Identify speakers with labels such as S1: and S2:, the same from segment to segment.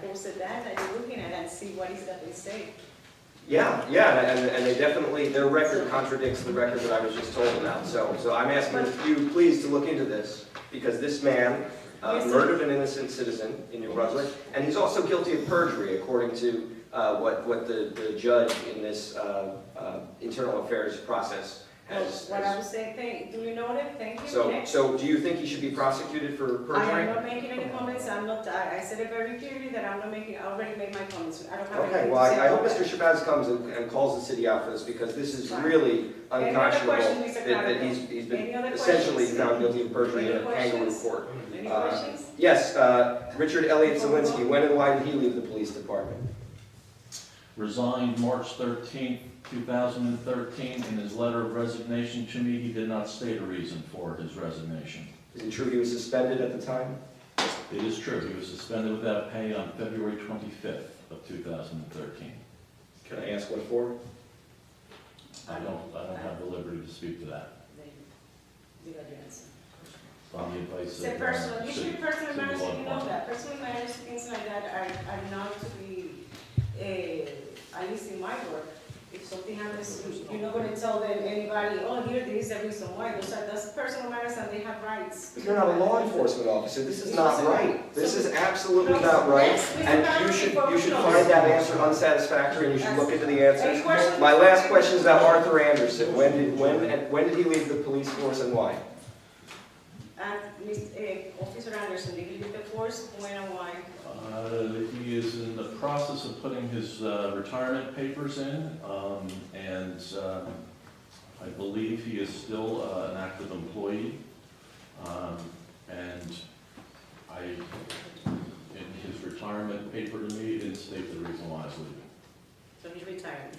S1: posted that, and you're looking at it and see what is that they say.
S2: Yeah, yeah, and, and they definitely, their record contradicts the record that I was just told about, so, so I'm asking you please to look into this, because this man uh,
S1: Yes, sir.
S2: murdered an innocent citizen in New Brunswick, and he's also guilty of perjury, according to uh, what, what the, the judge in this uh, uh, internal affairs process has.
S1: What I
S2: has-
S1: was saying, thank, do you know that? Thank you.
S2: So,
S1: Next.
S2: so do you think he should be prosecuted for
S1: I am
S2: perjury?
S1: not making any comments, I'm not, I, I said it very clearly that I'm not making, I already made my comments, I don't have anything to say.
S2: Okay, well, I I hope
S1: about that.
S2: Mr. Shabazz comes and and calls the city out for this, because this is
S1: Fine.
S2: really
S1: Any other
S2: unconscionable
S1: question, Mr.
S2: that that he's,
S1: Clavero?
S2: he's been
S1: Any other
S2: essentially
S1: questions?
S2: found guilty of perjury in a
S1: Any
S2: kangaroo
S1: questions?
S2: court.
S1: Any
S2: Uh,
S1: questions?
S2: Yes, uh, Richard Elliott Zelinski, when and why did he leave the police department?
S3: resigned March 13, 2013. In his letter of resignation to me, he did not state a reason for his resignation.
S2: Is it true he was suspended at the time?
S3: It is true, he was suspended without pay on February 25th of 2013.
S2: Can I ask what for?
S3: I don't, I don't have the liberty to speak to that
S1: You got your answer.
S3: on the advice
S1: It's
S3: of.
S1: a personal,
S3: uh,
S1: usually
S3: city-
S1: personal
S3: city
S1: matters,
S3: law
S1: you know
S3: enforcement.
S1: that, personal matters, things like that are, are not to be, uh, at least in my work. If something happens, you- you're not gonna tell them, anybody, oh, here, there is a reason why, those are, that's personal matters and they have rights.
S2: But you're not a law enforcement officer, this is not right. This is absolutely
S1: No,
S2: not right,
S1: next, Mr.
S2: and you
S1: Barrett,
S2: should,
S1: before
S2: you
S1: we
S2: should
S1: close.
S2: find that answer unsatisfactory, and you should look into the
S1: Any
S2: answers.
S1: questions?
S2: My last question is about Arthur Anderson, when did, when, and when did he leave the police force and why?
S1: And, Miss- eh, Officer Anderson, did you get the force, when and why?
S3: Uh, He is in the process of putting his uh, retirement papers in, um, and um, I believe he is still uh, an active employee. Um, And I, in his retirement paper to me, he didn't state the reason why he's leaving.
S1: So he's retiring.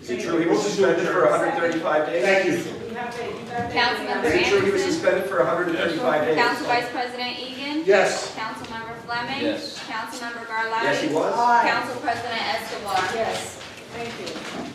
S2: Is it true he was suspended for 135 days?
S4: Thank you.
S1: You have the, you got the.
S2: Is
S5: Councilmember
S2: it true he was
S5: Anderson?
S2: suspended for 135 days?
S5: Council Vice President Egan.
S4: Yes.
S5: Councilmember Fleming.
S2: Yes.
S5: Councilmember Garlotti.
S2: Yes, he was.
S1: Aye.
S5: Council President Escobar.
S1: Yes, thank you.